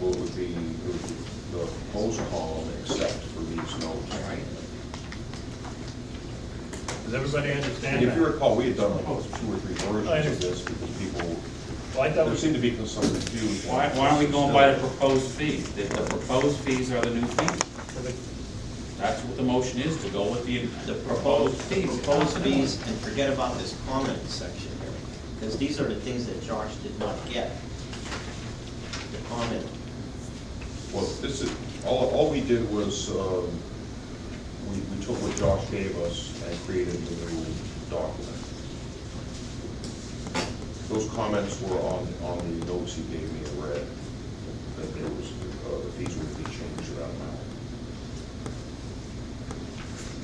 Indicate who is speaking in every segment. Speaker 1: would be, it would be the post hall except for these notes.
Speaker 2: All right.
Speaker 3: Does everybody understand
Speaker 1: And if you
Speaker 3: that?
Speaker 1: recall, we had done like two or three versions of this because people,
Speaker 3: Well, I thought
Speaker 1: there seemed
Speaker 3: we-
Speaker 1: to be some confusion.
Speaker 2: Why, why are we going by the proposed fees? The, the proposed fees are the new fees.
Speaker 3: for the-
Speaker 2: That's what the motion is, to go with the, the proposed
Speaker 4: Proposed,
Speaker 2: fees.
Speaker 4: proposed fees, and forget about this comment section here, because these are the things that Josh did not get. The comment,
Speaker 1: Well, this is, all, all we did was, um, we, we took what Josh gave us and created the new document. Those comments were on, on the notes he gave me in red, that there was, uh, the fees would be changed around now.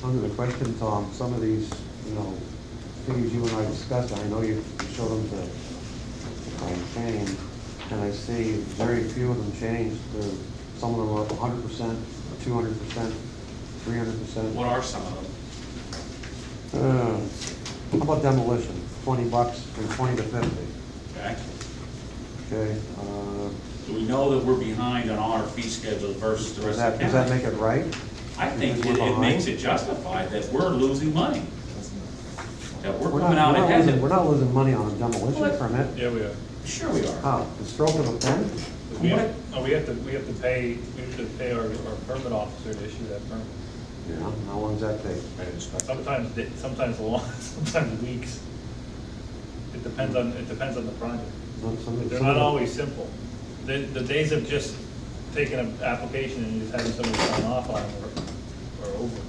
Speaker 5: Under the question, Tom, some of these, you know, things you and I discussed, I know you showed them to, um, change, and I see very few of them changed. There, some of them are up hundred percent, two hundred percent, three hundred percent. Uh,
Speaker 2: What are some of them?
Speaker 5: How about demolition? Twenty bucks from twenty to fifty,
Speaker 2: Okay?
Speaker 5: okay? Uh,
Speaker 2: Do we know that we're behind on all our fee schedules versus the
Speaker 5: Does
Speaker 2: rest
Speaker 5: that,
Speaker 2: of the
Speaker 5: does that
Speaker 2: county?
Speaker 5: make it right?
Speaker 2: I think
Speaker 5: We're
Speaker 2: it, it
Speaker 5: behind?
Speaker 2: makes it justified that we're losing money. That we're
Speaker 5: We're
Speaker 2: coming out
Speaker 5: not, we're not losing, we're
Speaker 2: ahead.
Speaker 5: not losing money on a demolition
Speaker 2: What?
Speaker 5: permit.
Speaker 3: Yeah, we are.
Speaker 2: Sure we are.
Speaker 5: How? The stroke of a pen?
Speaker 3: We have, no, we have to, we have to pay, we have to pay our, our permit officer to issue that permit.
Speaker 5: How how long's that take?
Speaker 1: And it's not-
Speaker 3: Sometimes, di- sometimes long, sometimes weeks. It depends on, it depends on the project.
Speaker 5: Some- some-
Speaker 3: They're
Speaker 5: some
Speaker 3: not
Speaker 5: of them-
Speaker 3: always simple. The, the days of just taking an application and just having somebody sign off on it are, are over.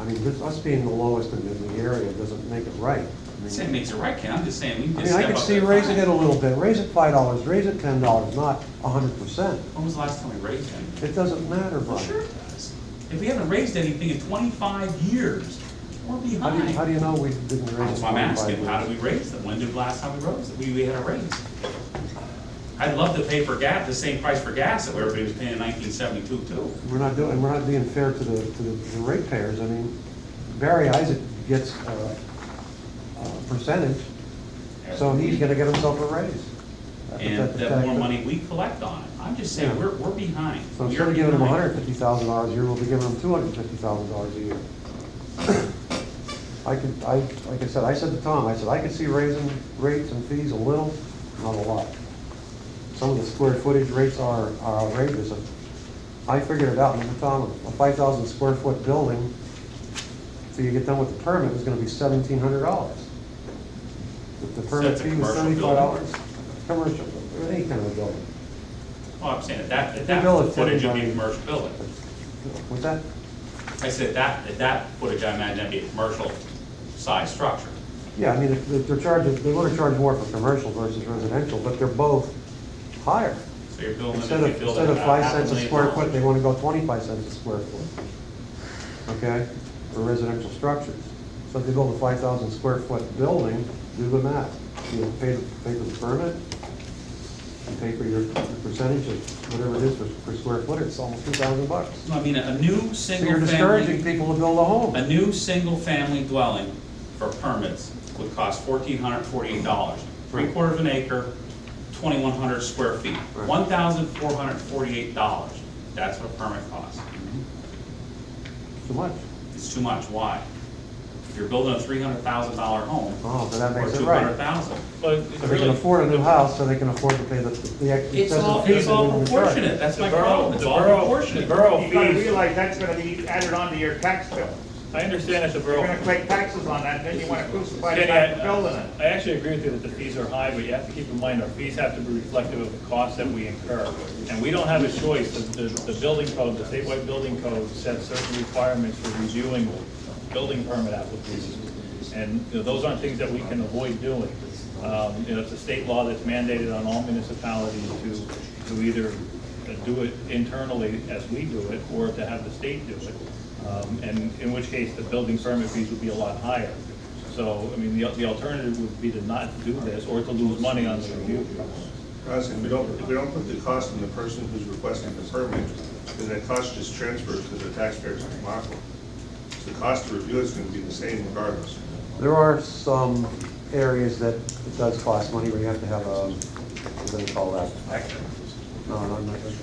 Speaker 5: I mean, this- us being the lowest in the- the area doesn't make it right. I
Speaker 2: I'm
Speaker 5: mean-
Speaker 2: saying it makes it right, Ken, I'm just saying we
Speaker 5: I
Speaker 2: can
Speaker 5: mean,
Speaker 2: just step
Speaker 5: I
Speaker 2: up.
Speaker 5: could see
Speaker 2: that
Speaker 5: raising
Speaker 2: fine.
Speaker 5: it a little bit, raise it five dollars, raise it ten dollars, not a hundred percent.
Speaker 2: When was the last time we raised it?
Speaker 5: It doesn't matter,
Speaker 2: Well, sure
Speaker 5: Brian.
Speaker 2: it does. If we haven't raised anything in twenty-five years, we're
Speaker 5: How do you, how do
Speaker 2: behind.
Speaker 5: you know we didn't raise
Speaker 2: That's
Speaker 5: it
Speaker 2: why I'm asking, how
Speaker 5: twenty-five
Speaker 2: did we
Speaker 5: years?
Speaker 2: raise them? When did the last time we rose, we, we had a raise? I'd love to pay for gas, the same price for gas that everybody was paying in nineteen seventy-two too.
Speaker 5: We're not doing, we're not being fair to the, to the to the ratepayers. I mean, Barry Isaac gets a, a percentage, so he's gonna get himself a raise. That's
Speaker 2: And
Speaker 5: what
Speaker 2: the
Speaker 5: tax-
Speaker 2: more money we collect on it. I'm just saying,
Speaker 5: Yeah.
Speaker 2: we're, we're behind.
Speaker 5: So
Speaker 2: We
Speaker 5: instead
Speaker 2: are
Speaker 5: of giving them
Speaker 2: behind.
Speaker 5: hundred and fifty thousand dollars a year, we'll be giving them two hundred and fifty thousand dollars a year. I could, I, like I said, I said to Tom, I said, I could see raising rates and fees a little, not a lot. Some of the square footage rates are are outrageous. I figured it out, remember Tom, a five thousand square foot building, till you get done with the permit, is gonna be seventeen hundred dollars. The permit
Speaker 2: it's a
Speaker 5: fee was
Speaker 2: commercial building?
Speaker 5: seventy-five dollars. Commercial, or any kind of a building.
Speaker 2: Well, Oh, I'm saying, at that, at
Speaker 5: The bill
Speaker 2: that
Speaker 5: is
Speaker 2: footage would be a
Speaker 5: different.
Speaker 2: commercial building.
Speaker 5: What's that?
Speaker 2: I said, that, at that footage, I imagine that'd be a commercial size structure.
Speaker 5: Yeah, I mean, if- if they're charging, they want to charge more for commercial versus residential, but they're both higher.
Speaker 2: So you're building, if
Speaker 5: Instead
Speaker 2: you
Speaker 5: of,
Speaker 2: build
Speaker 5: instead
Speaker 2: it
Speaker 5: of
Speaker 2: at
Speaker 5: five
Speaker 2: half a
Speaker 5: cents a
Speaker 2: million
Speaker 5: square foot,
Speaker 2: dollars.
Speaker 5: they want to go twenty-five cents a square foot. Okay, for residential structures. So if they build a five thousand square foot building, do the math. You pay, pay for the permit, you pay for your percentage of whatever it is per, per square foot, it's almost two thousand bucks.
Speaker 2: No, I mean, a new
Speaker 5: So you're
Speaker 2: single
Speaker 5: discouraging
Speaker 2: family,
Speaker 5: people to build a home.
Speaker 2: a new single family dwelling for permits would cost fourteen hundred forty-eight dollars. Three
Speaker 5: Right.
Speaker 2: quarter of an acre, twenty-one hundred square feet,
Speaker 5: Right.
Speaker 2: one thousand four hundred forty-eight dollars. That's what a permit costs.
Speaker 5: Too much.
Speaker 2: It's too much, why? If you're building a three hundred thousand dollar home.
Speaker 5: Oh, so that makes it
Speaker 2: Or two
Speaker 5: right.
Speaker 2: hundred thousand.
Speaker 3: But it's
Speaker 5: So they can
Speaker 3: really-
Speaker 5: afford a new house, so they can afford to pay the, the excess
Speaker 2: It's
Speaker 5: fees.
Speaker 2: all,
Speaker 5: that
Speaker 2: it's
Speaker 5: they
Speaker 2: all
Speaker 5: wouldn't charge.
Speaker 2: proportionate, that's
Speaker 3: The
Speaker 2: my
Speaker 3: borough-
Speaker 2: problem, it's
Speaker 3: the
Speaker 2: all
Speaker 3: borough-
Speaker 2: proportionate.
Speaker 3: The borough
Speaker 6: You gotta
Speaker 3: fees,
Speaker 6: realize that's gonna be added onto your tax bill.
Speaker 3: I understand it's a
Speaker 6: You're
Speaker 3: borough.
Speaker 6: gonna collect taxes on that, then you wanna crucify the
Speaker 3: Kenny,
Speaker 6: guy for
Speaker 3: I
Speaker 6: building it.
Speaker 3: I actually agree with you that the fees are high, but you have to keep in mind, our fees have to be reflective of the costs that we incur. And we don't have a choice, the, the the building code, the statewide building code sets certain requirements for reviewing building permit applications. And, you know, those aren't things that we can avoid doing. Um, you know, it's a state law that's mandated on all municipalities to, to either do it internally as we do it, or to have the state do it. Um, and in which case, the building permit fees would be a lot higher. So, I mean, the, the alternative would be to not do this or to lose money on the review.
Speaker 7: Guys, if we don't, if we don't put the cost on the person who's requesting the permit, then that cost just transfers to the taxpayers in Rockland. So the cost to review is gonna be the same regardless.
Speaker 5: There are some areas that it does cost money, where you have to have a, what do they call that? No, no, no.